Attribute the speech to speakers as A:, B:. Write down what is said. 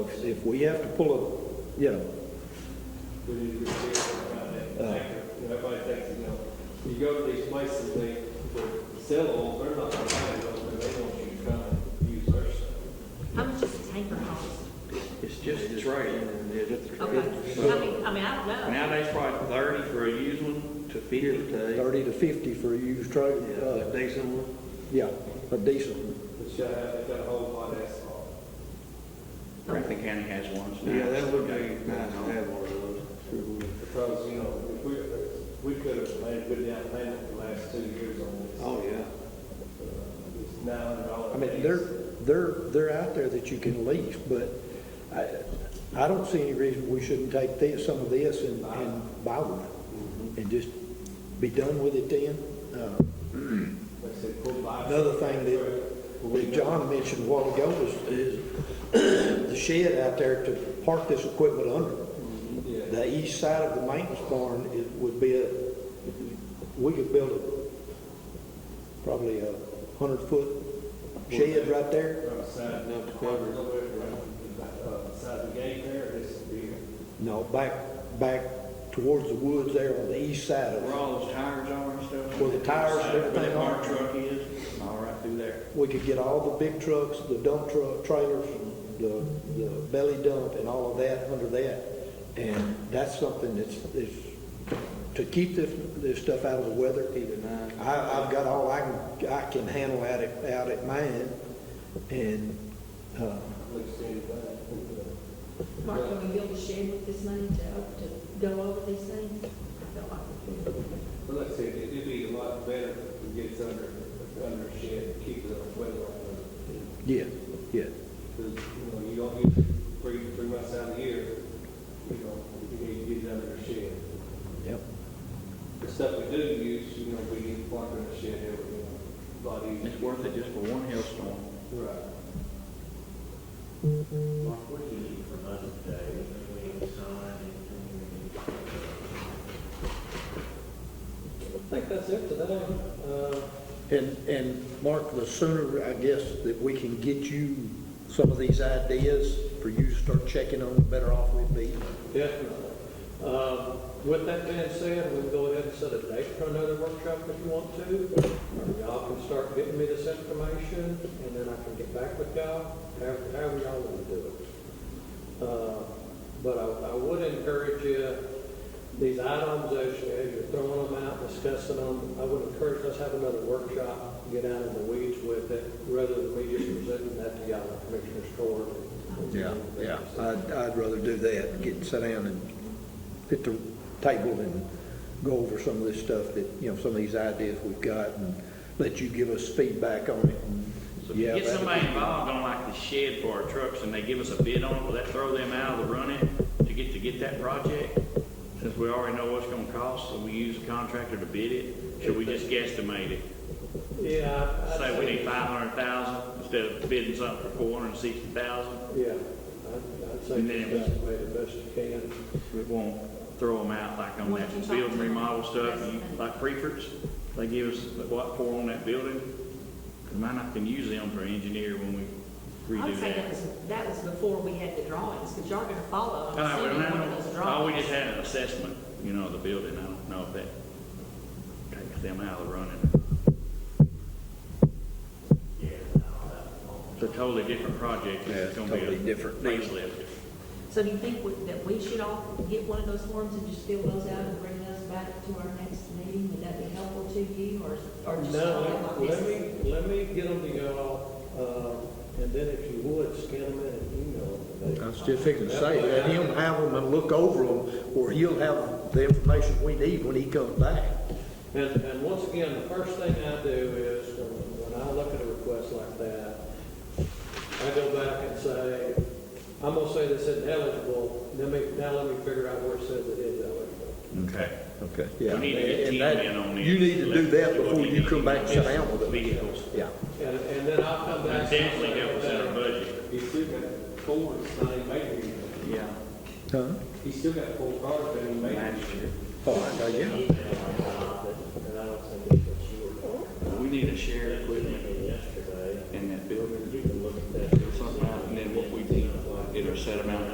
A: If we have to pull a, you know,
B: we need to get a around
A: Uh.
B: that tanker. You know, Everybody thinks, you know, you go to these places, they, they sell oil, they're not gonna buy it, but they want you to come and use their stuff.
C: How much does a tanker cost?
D: It's just a trade.
C: Okay, I mean, I mean, I don't know.
D: Nowadays, probably thirty for a used one to fifty to,
A: 30 to 50 for a used truck,
D: yeah,
A: uh,
D: a decent one.
A: yeah, a decent one.
B: It's got, it's got a whole lot of asphalt.
E: Franklin County has one. so
D: Yeah, that would
E: it's-
D: be nice to have one of those.
B: Because, you know, if we, we could have made a good down payment the last two years on this. Uh,
D: Oh, yeah.
B: It's nine hundred dollars.
A: I mean, they're, they're, they're out there that you can lease, but I, I don't see any reason we shouldn't take this, some of this and, and buy one.
D: Mm-hmm.
A: And just be done with it then. Uh,
B: Like I said, go buy.
A: Another thing that, that John mentioned a while ago was, is the shed out there to park this equipment under. The east side of the maintenance barn is, would be a, we could build a, probably a hundred foot shed right there.
B: From the side.
D: Enough to cover.
B: A little bit around, uh, side of the gate there, it's big.
A: No, back, back towards the woods there on the east side of
D: Where
A: it.
D: all those tires are and stuff.
A: Where the tires and
D: Where
A: everything
D: that
A: are.
D: fire truck is, all right through there.
A: We could get all the big trucks, the dump truck, trailers, the, the belly dump and all of that under that. And that's something that's, is, to keep this, this stuff out of the weather. I, I've got all I can, I can handle out at, out at mine. And, uh,
B: Looks good, but-
C: Mark, can we build a shed with this money to, to go over these things? I feel like we could.
B: Well, like I said, it- it'd be a lot better if it gets under, under a shed, keep it on weather line.
A: yeah, yeah,
B: Because, you know, you don't use it three, three months out of the year, you know, you need to get it under a shed.
A: yep.
B: The stuff we do use, you know, we need to park in a shed every, you know, lot easier.
E: It's worth it just for one hailstorm.
B: Right.
F: Mark, what do you need from us today, between sign and,
B: I think that's it today. Uh,
A: And, and Mark, the sooner, I guess, that we can get you some of these ideas for you to start checking on, the better off we'll be.
G: Definitely. Um, With that being said, we'll go ahead and set a date for another workshop if you want to. Y'all can start getting me this information, and then I can get back with y'all, however however y'all want to do it. Uh, But I I would encourage you, these items, as you- as you're throwing them out, discussing them, I would encourage us to have another workshop, get out in the weeds with it, rather than me just presenting that to y'all, in Commissioner's Court.
A: Yeah, yeah, I'd, I'd rather do that, get, sit down and hit the table and go over some of this stuff that, you know, some of these ideas we've got and let you give us feedback on it. and,
E: So if
A: yeah,
E: you
A: that'd
E: get
A: be-
E: somebody involved on like the shed for our trucks and they give us a bid on it, will that throw them out of the running to get, to get that project? Since we already know what's gonna cost, so we use a contractor to bid it, should we just guesstimate it?
G: Yeah. I'd
E: Say we need five hundred thousand instead of bidding something for four hundred and sixty thousand?
G: Yeah, I'd I'd say
E: And then it was-
G: that's the way the best you can.
E: We won't throw them out like on
C: What you
E: that
C: talking
E: building
C: about?
E: remodel stuff, you- like Prefords. They give us, what, four on that building? 'Cause Might not can use them for engineer when we
C: I would
E: redo
C: say that
E: that.
C: was, that was before we had the drawings, because y'all gonna follow, I'm
E: All right, well,
C: assuming, one
E: now,
C: of those
E: oh, we
C: drawings.
E: just had an assessment, you know, of the building. I don't know if that takes them out of the running.
F: yeah, and all that?
E: It's a totally different project.
A: Yeah,
E: It's gonna be a
A: totally different deal.
E: Facelift.
C: So do you think we- that we should all get one of those forms and just fill those out and bring those back to our next meeting? Would that be helpful to you, or, or just?
G: No, let me, let me get them to y'all, uh, and then if you would, scan them in and email them. to
A: I
G: me.
A: was just fixing to say, let him have them and look over them, or he'll have the information we need when he comes back.
G: And, and once again, the first thing I do is, when when I look at a request like that, I go back and say, I'm gonna say this isn't eligible, then me, now let me figure out where it says it is eligible.
E: Okay.
A: Okay.
E: We
A: Yeah.
E: need to get
A: and
E: ten
A: that-
E: men on this.
A: You need to do that
E: Let's
A: before
E: what
A: you
E: we
A: come
E: need.
A: back and sit down with it.
E: Vehicles.
A: Yeah,
G: And, and then I'll come back. and I'll
E: Definitely
G: say
E: help us in our
G: that.
E: budget.
B: He's still got four, it's not even made here yet.
E: Yeah.
A: huh?
B: He's still got four cars that he made.
A: Oh, I- yeah.
F: And I don't think it's what you were
E: We need to share equipment
F: thinking yesterday,
E: in that building.
F: you can look at that.
E: Something, and then what we did, either a set amount